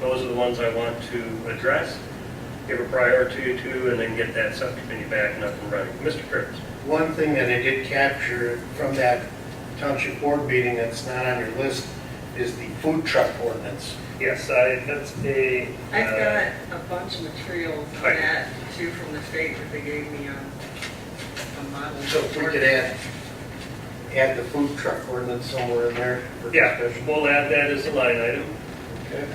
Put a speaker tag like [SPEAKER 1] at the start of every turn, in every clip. [SPEAKER 1] Those are the ones I want to address, give a priority to, and then get that subcommittee back and up and running. Mr. Kurtz?
[SPEAKER 2] One thing that I did capture from that township board meeting that's not on your list is the food truck ordinance.
[SPEAKER 3] Yes, I, that's a.
[SPEAKER 4] I've
[SPEAKER 3] uh,
[SPEAKER 4] got a bunch of materials on
[SPEAKER 3] Right.
[SPEAKER 4] that too from the state that they gave me on a model.
[SPEAKER 2] So if we could add, add the food truck ordinance somewhere in there for
[SPEAKER 3] Yeah,
[SPEAKER 2] discussion.
[SPEAKER 3] we'll add that as a line item.
[SPEAKER 2] Okay.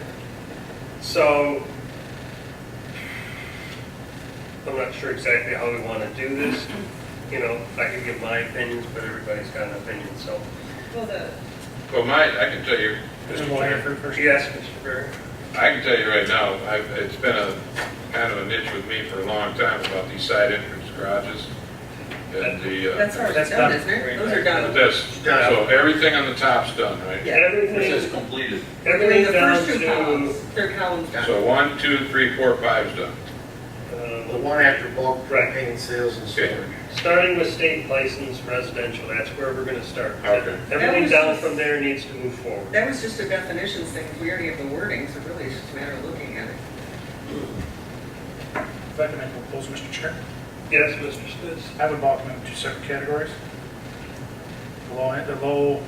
[SPEAKER 3] So I'm not sure exactly how we want to do this. You know, I can give my opinions, but everybody's got an opinion, so.
[SPEAKER 5] Well, the,
[SPEAKER 6] Well, my, I can tell you, Mr. Chair,
[SPEAKER 3] Yes, Mr. Berry?
[SPEAKER 6] I can tell you right now, I've, it's been a, kind of an itch with me for a long time about these side entrance garages. And the, uh,
[SPEAKER 4] That's already
[SPEAKER 3] That's
[SPEAKER 4] done,
[SPEAKER 3] done.
[SPEAKER 4] isn't it? Those are done.
[SPEAKER 6] this, so everything on the top's done, right?
[SPEAKER 4] Yeah.
[SPEAKER 7] This is
[SPEAKER 3] Everything,
[SPEAKER 7] completed.
[SPEAKER 4] Between
[SPEAKER 3] everything
[SPEAKER 4] the
[SPEAKER 3] down
[SPEAKER 4] first two
[SPEAKER 3] to,
[SPEAKER 4] columns, third column's done.
[SPEAKER 6] So one, two, three, four, five's done.
[SPEAKER 2] The
[SPEAKER 3] uh,
[SPEAKER 2] one after bulk
[SPEAKER 3] Right.
[SPEAKER 2] propane sales and
[SPEAKER 6] Okay.
[SPEAKER 2] storage.
[SPEAKER 3] starting with state license residential, that's where we're going to start.
[SPEAKER 6] Okay.
[SPEAKER 4] That
[SPEAKER 3] Everything
[SPEAKER 4] was
[SPEAKER 3] down
[SPEAKER 4] just-
[SPEAKER 3] from there needs to move forward.
[SPEAKER 4] That was just a definition thing, we already have the wording, so really it's just a matter of looking at it.
[SPEAKER 8] If I can make a proposal, Mr. Chair,
[SPEAKER 3] Yes, Mr. Spitz?
[SPEAKER 8] I would balk them into two separate categories. The low, the low,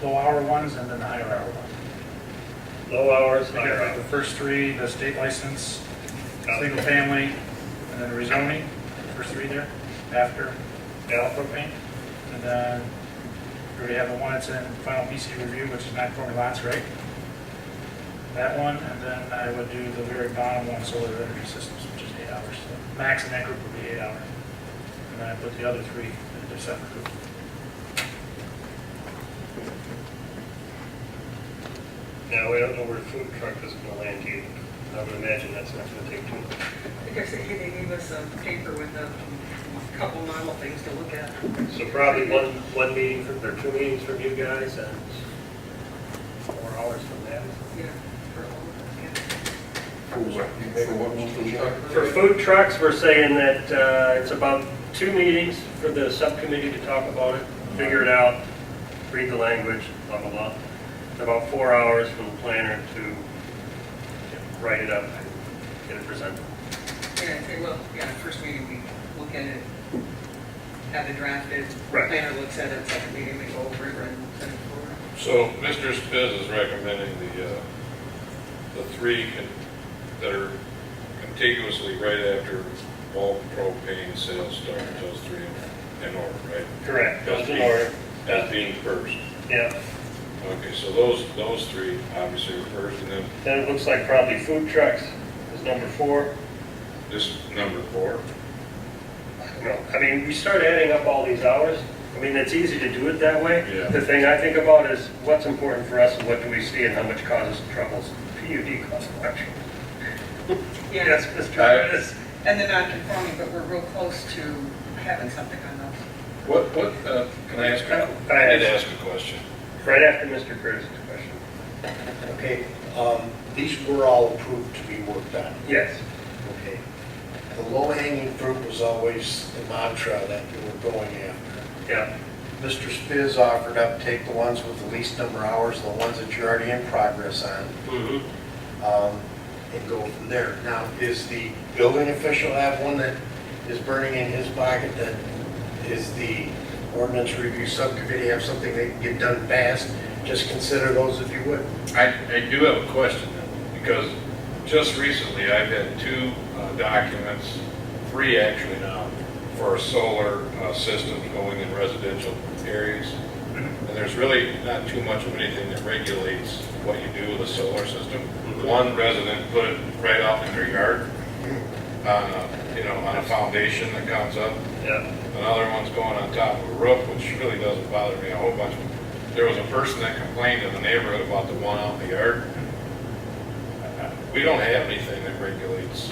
[SPEAKER 8] low hour ones and then the higher hour ones.
[SPEAKER 3] Low hours,
[SPEAKER 8] I
[SPEAKER 3] higher
[SPEAKER 8] got the
[SPEAKER 3] hours.
[SPEAKER 8] first three, the state license, single family, and then rezoning, first three there, after Dow propane. And then we already have the one that's in final PC review, which is non-conforming lots, right? That one, and then I would do the very bottom one, solar energy systems, which is eight hours. So Max in that group would be eight hours. And then I put the other three in a separate group.
[SPEAKER 3] Now, we don't know where the food truck is going to land either. I would imagine that's not going to take too long.
[SPEAKER 4] I think I said, hey, they gave us a paper with a couple model things to look at.
[SPEAKER 3] So probably one, one meeting from, or two meetings from you guys and four hours from that.
[SPEAKER 4] Yeah, for all of us,
[SPEAKER 3] For food trucks, we're saying that uh, it's about two meetings for the subcommittee to talk about it, figure it out, read the language, blah, blah, blah. It's About four hours from the planner to write it up and get it presented.
[SPEAKER 4] yeah. Yeah, I'd say, well, yeah, first meeting, we look at it, have it drafted,
[SPEAKER 3] Right.
[SPEAKER 4] planner looks at it, second meeting, we go over it, and send it forward.
[SPEAKER 6] So Mr. Spiz is recommending the, uh, the three con- that are contiguously right after bulk propane sales start, those three in- in order, right?
[SPEAKER 3] Correct. Those in
[SPEAKER 6] As being-
[SPEAKER 3] order.
[SPEAKER 6] As being first.
[SPEAKER 3] Yeah,
[SPEAKER 6] Okay, so those, those three obviously are first, and then
[SPEAKER 3] then it looks like probably food trucks is number four.
[SPEAKER 6] this is number four.
[SPEAKER 3] No, I mean, we start adding up all these hours. I mean, it's easy to do it that way.
[SPEAKER 6] Yeah.
[SPEAKER 3] The thing I think about is what's important for us and what do we see and how much causes troubles? PUD causes actually.
[SPEAKER 4] Yeah.
[SPEAKER 3] Yes, Mr. Travis.
[SPEAKER 4] And the non-conforming, but we're real close to having something on those.
[SPEAKER 6] What, what, uh, can I ask? a- I did ask a question.
[SPEAKER 3] Right after Mr. Curtis's question.
[SPEAKER 2] Okay, um, these were all approved to be worked on.
[SPEAKER 3] Yes.
[SPEAKER 2] Okay. The low-hanging fruit was always the mantra that you were going after.
[SPEAKER 3] Yeah.
[SPEAKER 2] Mr. Spiz offered up, take the ones with the least number of hours, the ones that you're already in progress on,
[SPEAKER 3] Mm-hmm.
[SPEAKER 2] um, and go from there. Now, is the building official have one that is burning in his pocket that is the ordinance review subcommittee have something that can get done fast? Just consider those if you would.
[SPEAKER 6] I, I do have a question, because just recently, I've had two uh, documents, three actually now, for solar uh, systems going in residential areas. And there's really not too much of anything that regulates what you do with a solar system. One resident put it right out in their yard, on a, you know, on a foundation that comes up.
[SPEAKER 3] Yeah.
[SPEAKER 6] Another one's going on top of a roof, which really doesn't bother me a whole bunch. There was a person that complained in the neighborhood about the one out in the yard. We don't have anything that regulates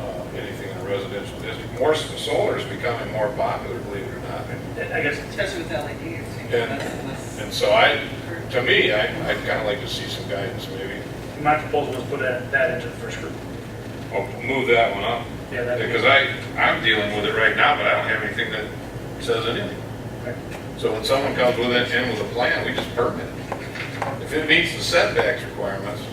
[SPEAKER 6] uh, anything in a residential district. More, solar is becoming more popular, believe it or not. And-
[SPEAKER 3] I guess,
[SPEAKER 4] Especially with E LEDs. you know,
[SPEAKER 6] Yeah.
[SPEAKER 4] that's less-
[SPEAKER 6] And so I, to me, I, I'd kind of like to see some guidance maybe.
[SPEAKER 8] My proposal was put that, that into the first group.
[SPEAKER 6] Well, move that one up.
[SPEAKER 8] Yeah, that'd be-
[SPEAKER 6] Because I, I'm dealing with it right now, but I don't have anything that says anything.
[SPEAKER 8] Okay.
[SPEAKER 6] So when someone comes with it and with a plan, we just permit it. If it meets the setbacks requirements,